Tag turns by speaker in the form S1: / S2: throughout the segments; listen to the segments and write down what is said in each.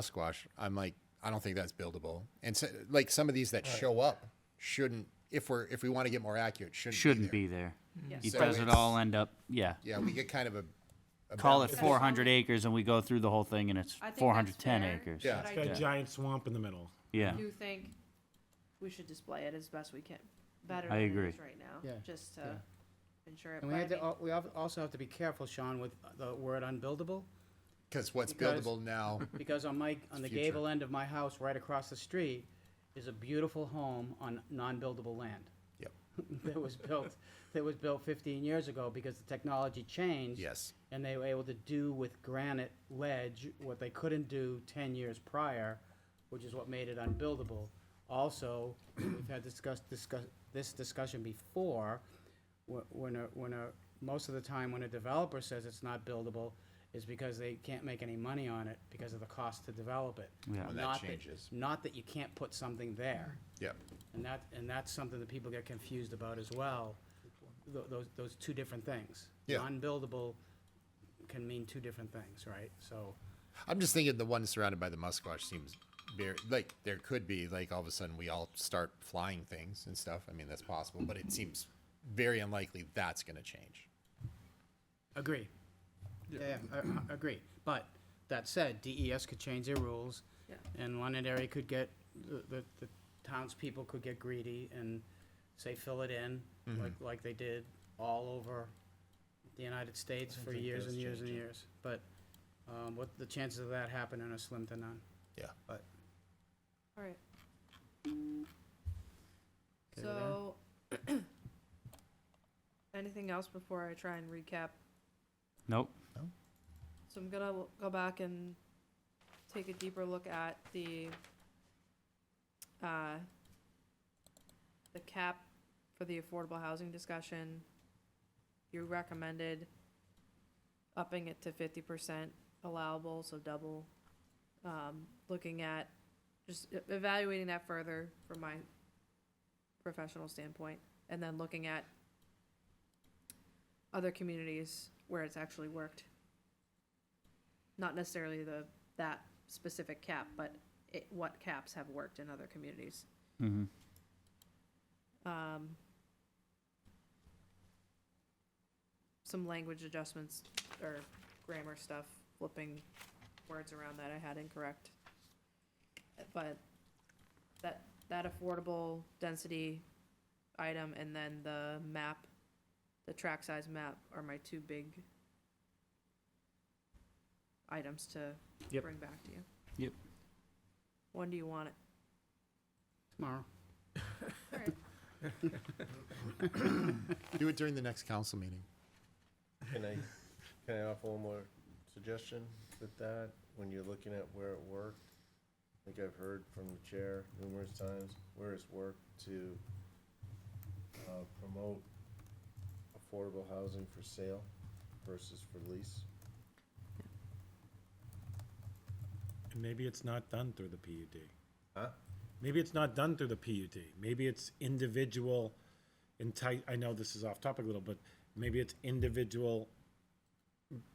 S1: musquash, I'm like, I don't think that's buildable. And so, like some of these that show up shouldn't, if we're if we want to get more accurate, shouldn't,
S2: shouldn't
S1: be.
S2: be there. It
S1: So
S2: does it
S1: it's-
S2: all end up, yeah.
S1: there. Yeah, we get kind of a, a
S2: Call it
S1: balance.
S2: four hundred acres and we go through the whole thing and it's
S3: I think that's
S2: four hundred ten
S3: fair,
S2: acres.
S1: Yeah.
S3: but I
S4: Got a
S3: do-
S4: giant swamp in the middle.
S2: Yeah,
S3: do think we should display it as best we can, better
S2: I
S3: than it
S2: agree.
S3: is right now,
S5: Yeah,
S3: just to
S5: yeah.
S3: ensure it.
S5: And we
S3: but I
S5: had to,
S3: mean,
S5: al- we al- also have to be careful, Sean, with the word unbuildable,
S1: because what's
S5: Because-
S1: buildable now.
S5: because on my, on the
S1: future.
S5: gable end of my house, right across the street, is a beautiful home on non-buildable land.
S1: Yep.
S5: That was built, that was built fifteen years ago because the technology changed.
S1: Yes.
S5: And they were able to do with granite ledge what they couldn't do ten years prior, which is what made it unbuildable. Also, we've had discussed, discuss, this discussion before, wh- when a, when a, most of the time when a developer says it's not buildable, is because they can't make any money on it because of the cost to develop it.
S2: Yeah. Well,
S1: that
S5: Not
S1: changes.
S5: Not that you can't put something there.
S1: Yep.
S5: And that, and that's something that people get confused about as well, tho- those, those two different things.
S1: Yeah.
S5: Non-buildable can mean two different things, right? So,
S1: I'm just thinking the one surrounded by the musquash seems very like there could be like all of a sudden we all start flying things and stuff. I mean that's possible, but it seems very unlikely that's going to change.
S5: agree. Yeah, yeah, I- I agree. But that said, DES could change their rules.
S3: Yeah.
S5: And Londonderry could get, the, the- the townspeople could get greedy and say, fill it in, like, like they did all over the United States for years and years and years. But, um, what, the chances of that happening are slim to none.
S1: Yeah.
S5: But
S3: All right.
S5: Okay with that?
S3: So, anything else before I try and recap?
S2: nope,
S3: So I'm gonna l- go back and take a deeper look at the, uh, the cap for the affordable housing discussion. You recommended upping it to fifty percent allowable, so double. Um, looking at, just e- evaluating that further from my professional standpoint, and then looking at other communities where it's actually worked not necessarily the, that specific cap, but it, what caps have worked in other communities.
S2: mm-hmm,
S3: Um, some language adjustments or grammar stuff, flipping words around that I had incorrect. But that, that affordable density item and then the map, the track size map are my two big items to
S4: Yep.
S3: bring back to you.
S2: Yep.
S3: When do you want it?
S5: tomorrow.
S1: Do it during the next council meeting.
S6: Can I, can I offer one more suggestion with that? When you're looking at where it worked, I think I've heard from the chair numerous times, where it's worked to uh, promote affordable housing for sale versus for lease.
S4: And maybe it's not done through the PUD.
S6: Huh?
S4: Maybe it's not done through the PUD. Maybe it's individual enti- I know this is off topic a little, but maybe it's individual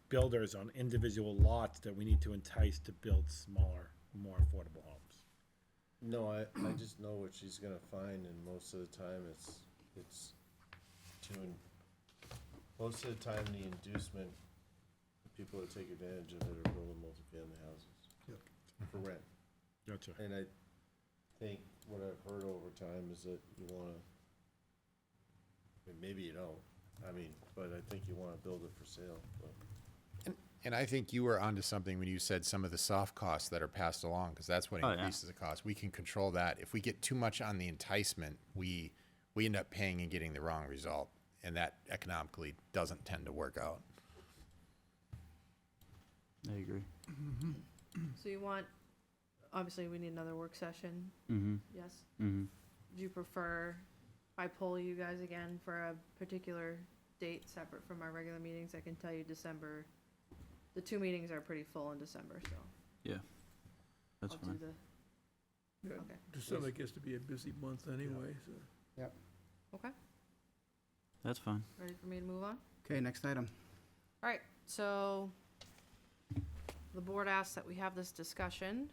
S4: builders on individual lots that we need to entice to build smaller, more affordable homes.
S6: No, I, I just know what she's gonna find and most of the time it's, it's to, en- most of the time the inducement, people that take advantage of it are building multifamily houses. For rent.
S4: Gotcha.
S6: And I think what I've heard over time is that you wanna, and maybe you don't, I mean, but I think you wanna build it for sale, but.
S1: And, and I think you were onto something when you said some of the soft costs that are passed along, because that's what
S2: Oh, yeah.
S1: increases the cost. We can control that. If we get too much on the enticement, we we end up paying and getting the wrong result, and that economically doesn't tend to work out.
S2: I agree,
S3: So you want, obviously, we need another work session,
S2: mm-hmm,
S3: yes?
S2: mm-hmm.
S3: Do you prefer I poll you guys again for a particular date separate from our regular meetings? I can tell you December, the two meetings are pretty full in December, so
S2: That's
S3: I'll do
S2: fine.
S3: the,
S7: Yeah,
S3: okay.
S7: December gets to be a busy month anyway, so.
S2: That's fine.
S3: Ready for me to move on?
S5: Okay, next item.
S3: All right, so the board asks that we have this discussion